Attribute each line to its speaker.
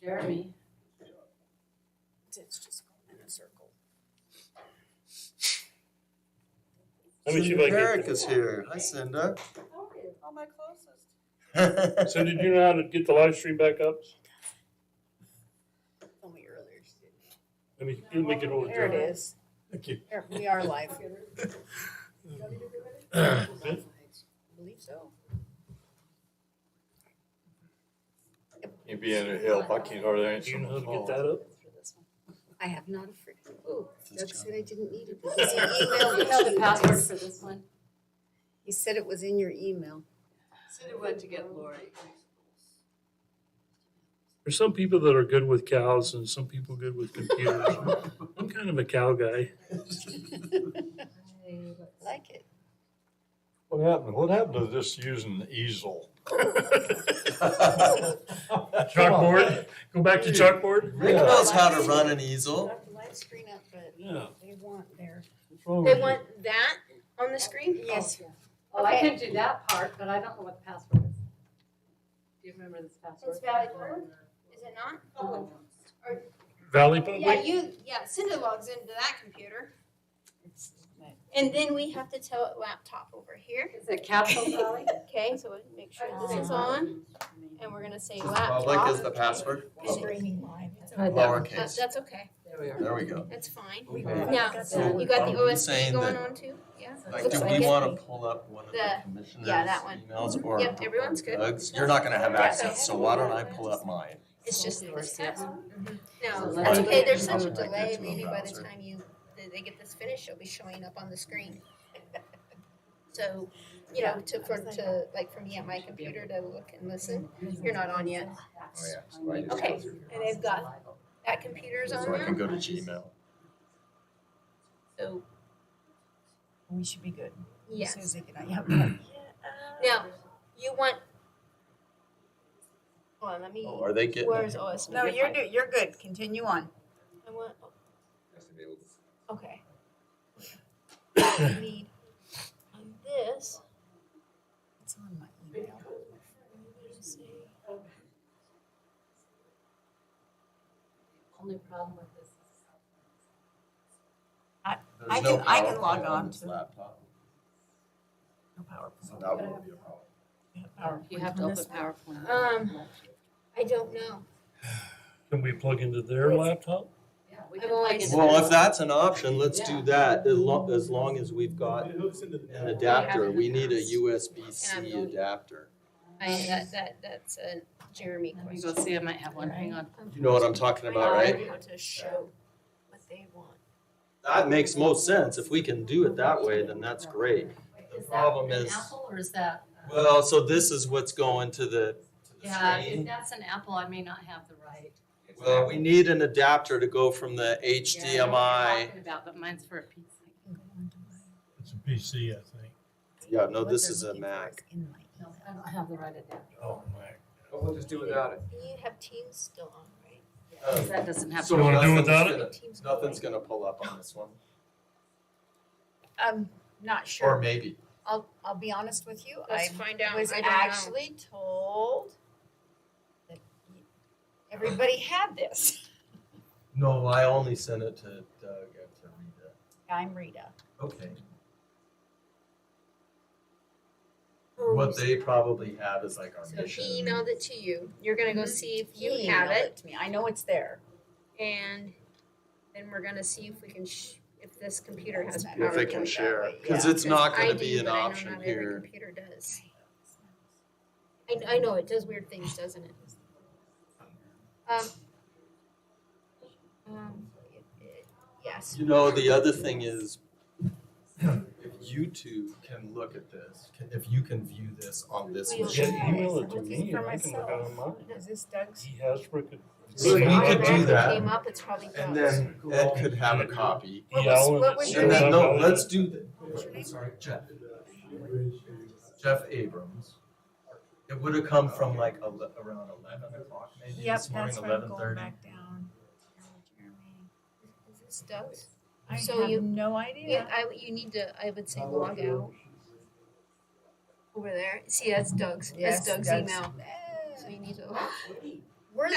Speaker 1: Jeremy.
Speaker 2: It's just going in a circle.
Speaker 3: Let me see if I
Speaker 4: Eric
Speaker 3: can.
Speaker 4: is here. Hi, Cinda.
Speaker 2: Oh, my closest.
Speaker 3: So did you know how to get the live stream back up?
Speaker 2: Told me earlier. she didn't.
Speaker 3: Let me, let me get over
Speaker 2: There it
Speaker 3: there.
Speaker 2: is.
Speaker 3: Thank you.
Speaker 2: There, we are live. I believe so.
Speaker 5: You'd be in a help. I can't hardly
Speaker 3: Do
Speaker 5: answer
Speaker 3: you know how
Speaker 5: my
Speaker 3: to get
Speaker 5: phone.
Speaker 3: that up?
Speaker 2: I have not a friend. Ooh, Doug said I didn't need it.
Speaker 1: Do
Speaker 2: because he emailed
Speaker 1: you
Speaker 2: it
Speaker 1: know
Speaker 2: to
Speaker 1: the
Speaker 2: you
Speaker 1: password
Speaker 2: guys.
Speaker 1: for this one?
Speaker 2: He said it was in your email.
Speaker 1: Cindy went to get Lori.
Speaker 3: There's some people that are good with cows and some people good with computers. I'm kind of a cow guy.
Speaker 2: Like it.
Speaker 5: What happened? What happened to this using the easel?
Speaker 3: Chalkboard, go back to chalkboard?
Speaker 4: Rick
Speaker 5: Yeah.
Speaker 4: knows how to run an
Speaker 3: Oh.
Speaker 4: easel.
Speaker 2: Not the live screen up, but
Speaker 3: Yeah.
Speaker 2: they want their.
Speaker 5: What's wrong
Speaker 6: They
Speaker 5: with you?
Speaker 6: want that on the screen?
Speaker 2: Yes.
Speaker 1: Oh, I can do that part, but I don't know what the password is. Do you remember this password?
Speaker 6: It's valid word? Is it not?
Speaker 1: Oh,
Speaker 3: Valley
Speaker 6: Yeah,
Speaker 3: Public?
Speaker 6: you, yeah, Cinda logs into that computer.
Speaker 2: It's-
Speaker 6: And then we have to tell it laptop over here.
Speaker 1: Is it Capital Valley?
Speaker 6: Okay, so we make sure this is
Speaker 1: Uh-huh.
Speaker 6: on and we're gonna say
Speaker 4: Just public is
Speaker 6: laptop.
Speaker 4: the password.
Speaker 2: It's
Speaker 4: Public.
Speaker 2: Oh. streaming live. It's
Speaker 1: Right there.
Speaker 6: Uh,
Speaker 4: Lowercase.
Speaker 6: That's okay.
Speaker 1: There we are.
Speaker 4: There we go.
Speaker 6: That's fine.
Speaker 2: We
Speaker 5: Okay.
Speaker 2: got-
Speaker 6: Now,
Speaker 2: So-
Speaker 6: you got the
Speaker 4: Are you
Speaker 6: OSP
Speaker 4: saying
Speaker 6: going
Speaker 4: that-
Speaker 6: on too? Yeah?
Speaker 4: Like,
Speaker 6: Looks
Speaker 4: do
Speaker 6: like
Speaker 4: we
Speaker 6: it.
Speaker 4: want to pull up one of the
Speaker 6: The-
Speaker 4: commissioners'
Speaker 6: yeah, that one.
Speaker 4: emails or
Speaker 6: Yep, everyone's good.
Speaker 4: Doug's? You're not gonna have access, so why don't I pull up mine?
Speaker 6: It's just this test.
Speaker 1: So
Speaker 6: No,
Speaker 1: let's
Speaker 6: that's
Speaker 1: do
Speaker 6: okay.
Speaker 1: it.
Speaker 6: There's such a
Speaker 4: I'll connect it
Speaker 6: delay.
Speaker 4: to a
Speaker 6: Maybe by the
Speaker 4: browser.
Speaker 6: time you, they- they get this finished, it'll be showing up on the screen. So, you know, to, for, to, like, from yet my computer to look and listen, you're not on yet. Okay, and they've got, that computer's on
Speaker 4: So I can
Speaker 6: now,
Speaker 4: go to Gmail.
Speaker 6: so,
Speaker 2: We should be good. As
Speaker 6: yes.
Speaker 2: soon as they get out, yeah.
Speaker 6: Now, you want. Hold on, let me,
Speaker 4: Oh, are they getting
Speaker 6: where's
Speaker 4: it?
Speaker 6: OS?
Speaker 2: No, you're, do- you're good. Continue on.
Speaker 6: I want, oh, okay. Need on this.
Speaker 2: It's on my email.
Speaker 1: Only problem with this is.
Speaker 4: There's
Speaker 2: I
Speaker 4: no
Speaker 2: can- I can
Speaker 4: PowerPoint
Speaker 2: log on
Speaker 4: this
Speaker 2: to-
Speaker 4: Laptop,
Speaker 2: No PowerPoint.
Speaker 4: so that won't be a problem.
Speaker 2: PowerPoint
Speaker 1: You have to
Speaker 2: on
Speaker 1: open
Speaker 2: this one.
Speaker 1: PowerPoint.
Speaker 6: Um, I don't know.
Speaker 3: Can we plug into their laptop?
Speaker 1: Yeah, we
Speaker 6: I've
Speaker 1: can
Speaker 6: always-
Speaker 1: plug it in.
Speaker 4: Well, if that's an option, let's do
Speaker 1: Yeah.
Speaker 4: that, as lo- as long as we've got an adapter, we need a
Speaker 6: And I'm
Speaker 4: USB-C
Speaker 6: going-
Speaker 4: adapter.
Speaker 6: I, that, that, that's a Jeremy
Speaker 1: Let me
Speaker 6: question.
Speaker 1: go see, I might have one, hang on.
Speaker 4: You know what I'm talking about,
Speaker 6: I
Speaker 4: right?
Speaker 6: don't know how to show what they want.
Speaker 4: That makes most sense, if we can do it that way, then that's great. The
Speaker 1: Is that
Speaker 4: problem
Speaker 1: an
Speaker 4: is-
Speaker 1: apple or is that? uh,
Speaker 4: Well, so this is what's going to the, to the
Speaker 1: Yeah, if
Speaker 4: screen.
Speaker 1: that's an apple, I may not have the right.
Speaker 4: Well, we need an adapter to go from the
Speaker 1: Yeah, I know what you're
Speaker 4: HDMI.
Speaker 1: Talking about, but mine's for a pizza.
Speaker 3: It's a PC, I think.
Speaker 4: Yeah, no,
Speaker 2: What
Speaker 4: this
Speaker 2: they're
Speaker 4: is a
Speaker 2: looking for
Speaker 4: Mac.
Speaker 2: in my
Speaker 1: No,
Speaker 2: email.
Speaker 1: I don't have the right adapter.
Speaker 3: Oh, my.
Speaker 7: We'll just do without it.
Speaker 6: You have Teams still on, right?
Speaker 4: Oh.
Speaker 1: That doesn't have.
Speaker 4: So
Speaker 3: You wanna do
Speaker 4: nothing's
Speaker 3: without it?
Speaker 4: gonna-
Speaker 6: Teams going.
Speaker 4: Nothing's gonna pull up on this one,
Speaker 2: I'm Um, not
Speaker 4: or
Speaker 2: sure.
Speaker 4: maybe.
Speaker 2: I'll, I'll be honest with you. I
Speaker 6: Let's find out.
Speaker 2: was
Speaker 6: I don't know.
Speaker 2: actually told that y- everybody had this.
Speaker 4: No, I only sent it to Doug and to Rita.
Speaker 2: I'm Rita.
Speaker 4: Okay. What they probably have is like our
Speaker 6: So he
Speaker 4: mission.
Speaker 6: emailed it to you. You're gonna go see if
Speaker 2: He
Speaker 6: you have
Speaker 2: emailed
Speaker 6: it
Speaker 2: To me. I know it's there.
Speaker 6: and then we're gonna see if we can, sh- if this computer has
Speaker 2: If
Speaker 6: PowerPoint.
Speaker 4: If they can share,
Speaker 2: Yeah.
Speaker 4: because it's not
Speaker 6: I
Speaker 4: gonna
Speaker 6: do,
Speaker 4: be an
Speaker 6: but I know
Speaker 4: option
Speaker 6: not every
Speaker 4: here.
Speaker 6: Computer does. I, I know, it does weird things, doesn't it? Um. Um, it- it- yes.
Speaker 4: You know, the other thing is, if you two can look at this, can- if you can view this on this
Speaker 6: We'll
Speaker 4: machine.
Speaker 3: Yeah, email it to
Speaker 2: This is
Speaker 3: me
Speaker 2: for
Speaker 3: and I can look at it on mine. E
Speaker 2: Is this Doug's?
Speaker 3: He has freaking.
Speaker 4: So we
Speaker 6: If
Speaker 4: could
Speaker 6: it
Speaker 4: do
Speaker 6: automatically
Speaker 4: that,
Speaker 6: Came up, it's probably
Speaker 4: And
Speaker 6: Doug's.
Speaker 4: then Ed could have a copy.
Speaker 2: What was-
Speaker 3: Yeah, I'll-
Speaker 2: what was your
Speaker 4: And then, no,
Speaker 3: I'll-
Speaker 4: let's do that.
Speaker 2: What's your name?
Speaker 4: Sorry, Jeff. Jeff Abrams. It would have come from like ele- around eleven o'clock maybe
Speaker 2: Yep,
Speaker 4: this morning,
Speaker 2: that's where I'm
Speaker 4: eleven
Speaker 2: going
Speaker 4: thirty.
Speaker 2: back down.
Speaker 6: Is this Doug's?
Speaker 2: I
Speaker 6: So you-
Speaker 2: have no
Speaker 6: You,
Speaker 2: idea.
Speaker 6: I, you need to, I would say log out over there. See, that's Doug's, that's
Speaker 2: Yes,
Speaker 6: Doug's
Speaker 2: Doug's.
Speaker 6: email.
Speaker 2: Eh,
Speaker 6: So you need to.
Speaker 2: We're